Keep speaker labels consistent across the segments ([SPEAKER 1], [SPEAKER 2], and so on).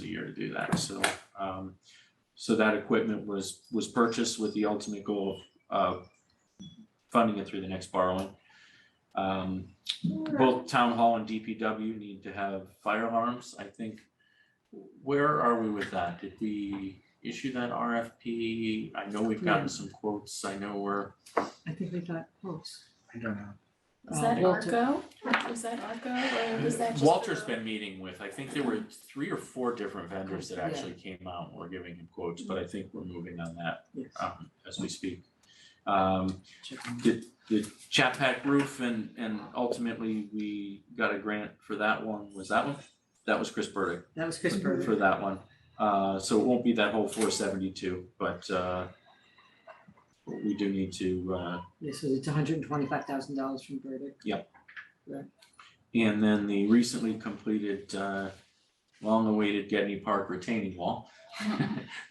[SPEAKER 1] a year to do that, so, um, so that equipment was, was purchased with the ultimate goal of, uh, funding it through the next borrowing. Um, both town hall and DPW need to have fire alarms, I think. Where are we with that? Did we issue that RFP? I know we've gotten
[SPEAKER 2] Hmm.
[SPEAKER 1] some quotes, I know we're,
[SPEAKER 3] I think we got close.
[SPEAKER 4] I don't know.
[SPEAKER 2] Is that
[SPEAKER 3] Um, Walter-
[SPEAKER 2] ARCO? Is that ARCO or is that just?
[SPEAKER 1] Walter's
[SPEAKER 2] the-
[SPEAKER 1] been meeting with, I think there were three or four different vendors that actually came out and were giving him quotes, but I think we're moving on that
[SPEAKER 3] Yes.
[SPEAKER 1] um as we speak. Um
[SPEAKER 3] Chicken.
[SPEAKER 1] the the Chapac roof and and ultimately we got a grant for that one, was that one? That was Chris Burdick
[SPEAKER 3] That was Chris Burdick.
[SPEAKER 1] for that one. Uh so it won't be that whole four seventy two, but uh we do need to uh
[SPEAKER 3] Yes, so it's hundred and twenty-five thousand dollars from Burdick.
[SPEAKER 1] And then the recently completed, uh, long-awaited Getney Park retaining wall.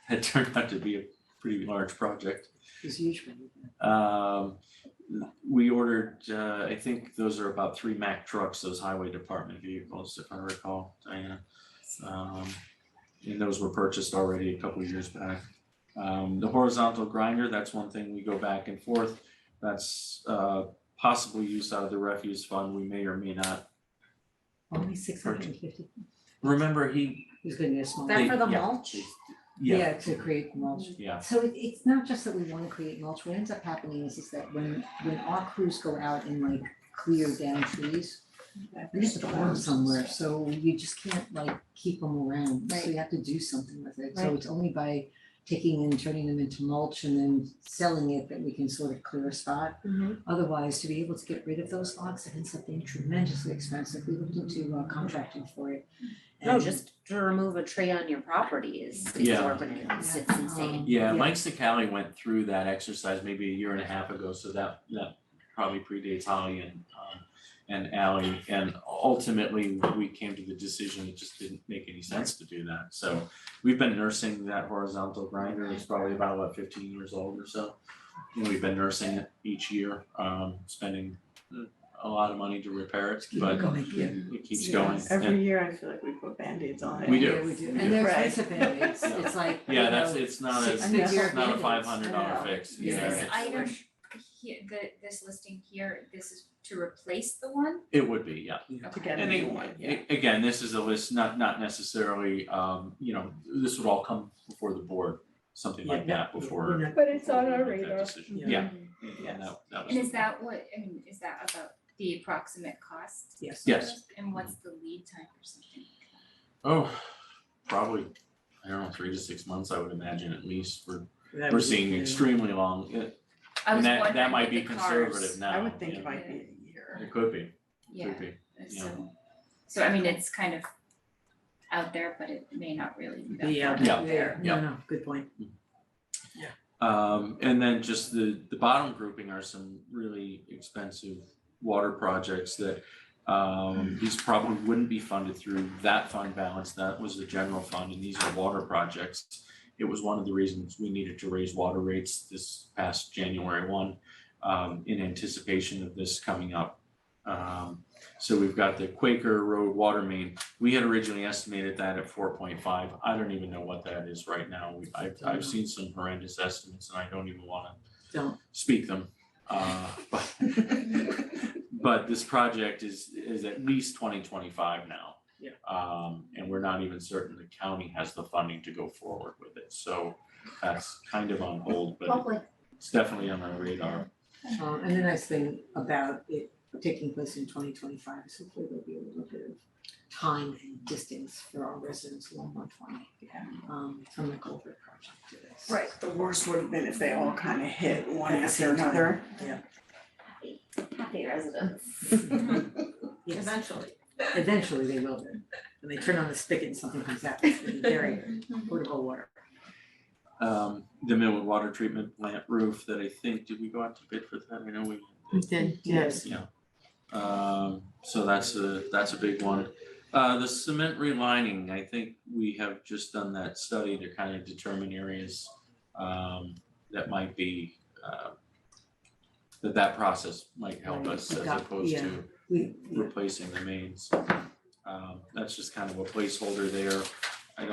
[SPEAKER 1] That turned out to be a pretty large project.
[SPEAKER 3] It's huge money.
[SPEAKER 1] Um, we ordered, uh, I think those are about three Mack trucks, those highway department vehicles, if I recall, Diana. Um, and those were purchased already a couple of years back. Um, the horizontal grinder, that's one thing we go back and forth. That's, uh, possible use out of the refuse fund. We may or may not
[SPEAKER 3] Only six hundred and fifty.
[SPEAKER 1] Remember he.
[SPEAKER 3] He's gonna need a small.
[SPEAKER 1] they-
[SPEAKER 5] That for the
[SPEAKER 1] yeah,
[SPEAKER 5] mulch?
[SPEAKER 1] they- Yeah,
[SPEAKER 3] To create mulch.
[SPEAKER 1] yeah,
[SPEAKER 5] So it it's not just that we wanna create mulch, what ends up happening is is that when when our crews go out and like clear down trees, we have to put them somewhere, so you just can't like keep them around, so you have to do something with it, so
[SPEAKER 3] Right.
[SPEAKER 5] it's only by taking and turning them into mulch and then selling it that we can sort of clear a spot.
[SPEAKER 2] Mhm.
[SPEAKER 5] Otherwise, to be able to get rid of those lots, it ends up being tremendously expensive, we looked into uh, contracting for it.
[SPEAKER 6] No,
[SPEAKER 3] Oh.
[SPEAKER 5] and-
[SPEAKER 6] just to remove a tree on your property is
[SPEAKER 1] Yeah.
[SPEAKER 6] exorbitant, it's it's insane.
[SPEAKER 1] yeah,
[SPEAKER 5] Yeah.
[SPEAKER 1] Mike Sicali went through that exercise maybe a year and a half ago, so that that probably predates Holly and um. And Ally, and ultimately, we came to the decision, it just didn't make any sense to do that, so. We've been nursing that horizontal grinder, it's probably about what fifteen years old or so. And we've been nursing it each year, um spending a lot of money to repair it,
[SPEAKER 3] Keep it
[SPEAKER 1] but
[SPEAKER 3] going.
[SPEAKER 5] Yeah.
[SPEAKER 1] it keeps
[SPEAKER 7] Yeah,
[SPEAKER 1] going, and
[SPEAKER 7] Every year I feel like we put Band-Aids on it.
[SPEAKER 1] We do.
[SPEAKER 3] Yeah, we do.
[SPEAKER 1] We
[SPEAKER 3] And
[SPEAKER 1] do.
[SPEAKER 3] they're
[SPEAKER 7] Right.
[SPEAKER 3] expensive Band-Aids.
[SPEAKER 1] Yeah.
[SPEAKER 3] It's like, you
[SPEAKER 1] yeah, that's,
[SPEAKER 3] know,
[SPEAKER 1] it's not a,
[SPEAKER 3] six
[SPEAKER 1] it's
[SPEAKER 3] figure
[SPEAKER 1] not a
[SPEAKER 3] Band-Aids.
[SPEAKER 1] five hundred dollar
[SPEAKER 3] I know.
[SPEAKER 1] fix,
[SPEAKER 3] Yeah.
[SPEAKER 1] yeah,
[SPEAKER 3] This
[SPEAKER 1] it's-
[SPEAKER 8] item here, the, this listing here, this is to replace the one?
[SPEAKER 1] It would be, yeah.
[SPEAKER 7] To get a
[SPEAKER 1] And
[SPEAKER 7] new
[SPEAKER 1] it-
[SPEAKER 7] one, yeah.
[SPEAKER 1] A- Again, this is a list, not, not necessarily, um, you know, this would all come before the board, something like
[SPEAKER 3] Yeah.
[SPEAKER 1] that before.
[SPEAKER 7] But it's
[SPEAKER 1] before
[SPEAKER 7] on
[SPEAKER 1] we
[SPEAKER 7] our
[SPEAKER 1] make that
[SPEAKER 7] radar.
[SPEAKER 1] decision. Yeah. and-
[SPEAKER 7] Yes.
[SPEAKER 1] and that- that was-
[SPEAKER 8] Mm-hmm. And is that what, I mean, is that about the approximate cost?
[SPEAKER 3] Yes.
[SPEAKER 1] Yes.
[SPEAKER 8] And what's the lead time for something?
[SPEAKER 1] Oh, probably, I don't know, three to six months, I would imagine at least, we're,
[SPEAKER 3] That
[SPEAKER 1] we're
[SPEAKER 3] was-
[SPEAKER 1] seeing
[SPEAKER 3] yeah.
[SPEAKER 1] extremely long, uh,
[SPEAKER 8] I
[SPEAKER 1] and
[SPEAKER 8] was
[SPEAKER 1] that, that
[SPEAKER 8] wondering
[SPEAKER 1] might
[SPEAKER 8] with
[SPEAKER 1] be
[SPEAKER 8] the cars.
[SPEAKER 1] conservative now.
[SPEAKER 7] I would think it
[SPEAKER 1] yeah.
[SPEAKER 7] might be a year.
[SPEAKER 1] It could be,
[SPEAKER 8] Yeah,
[SPEAKER 1] could be, yeah.
[SPEAKER 8] so, so I mean, it's kind of out there, but it may not really be that far.
[SPEAKER 3] Be out
[SPEAKER 1] Yeah.
[SPEAKER 3] there.
[SPEAKER 1] Yeah.
[SPEAKER 3] No, no, good point.
[SPEAKER 1] Um, and then just the, the bottom grouping are some really expensive water projects that, um, these probably wouldn't be funded through that fund balance, that was the general fund, and these are water projects. It was one of the reasons we needed to raise water rates this past January one, um, in anticipation of this coming up. Um, so we've got the Quaker Road Water Main, we had originally estimated that at four point five, I don't even know what that is right now, we, I've, I've seen some horrendous estimates and I don't even wanna
[SPEAKER 3] Don't.
[SPEAKER 1] speak them. Uh, but, but this project is, is at least twenty twenty-five now.
[SPEAKER 3] Yeah.
[SPEAKER 1] Um, and we're not even certain the county has the funding to go forward with it, so that's kind of on hold, but
[SPEAKER 6] Public
[SPEAKER 1] it's definitely on our radar.
[SPEAKER 3] Um, and the nice thing about it taking place in twenty twenty-five is hopefully there'll be a little bit of time and distance for our residents along one twenty.
[SPEAKER 7] Yeah.
[SPEAKER 3] Um, from the Culver project to this.
[SPEAKER 7] Right, the worst would have been if they all kind of hit one
[SPEAKER 3] At the
[SPEAKER 7] after
[SPEAKER 3] same time.
[SPEAKER 7] another.
[SPEAKER 6] happy residents.
[SPEAKER 3] Yes.
[SPEAKER 6] Eventually.
[SPEAKER 3] Eventually they will be. When they turn on the spigot and something comes out, it's gonna be very potable water.
[SPEAKER 1] Um, the Millwood Water Treatment Plant roof that I think, did we go out to bid for that? I know we
[SPEAKER 3] Yes.
[SPEAKER 1] Um, so that's a, that's a big one. Uh, the cement relining, I think we have just done that study to kind of determine areas um, that might be, uh, that that process might help
[SPEAKER 3] Right,
[SPEAKER 1] us as
[SPEAKER 3] adopt-
[SPEAKER 1] opposed
[SPEAKER 3] yeah.
[SPEAKER 1] to
[SPEAKER 3] We,
[SPEAKER 1] replacing the mains. Um, that's just kind of a placeholder there.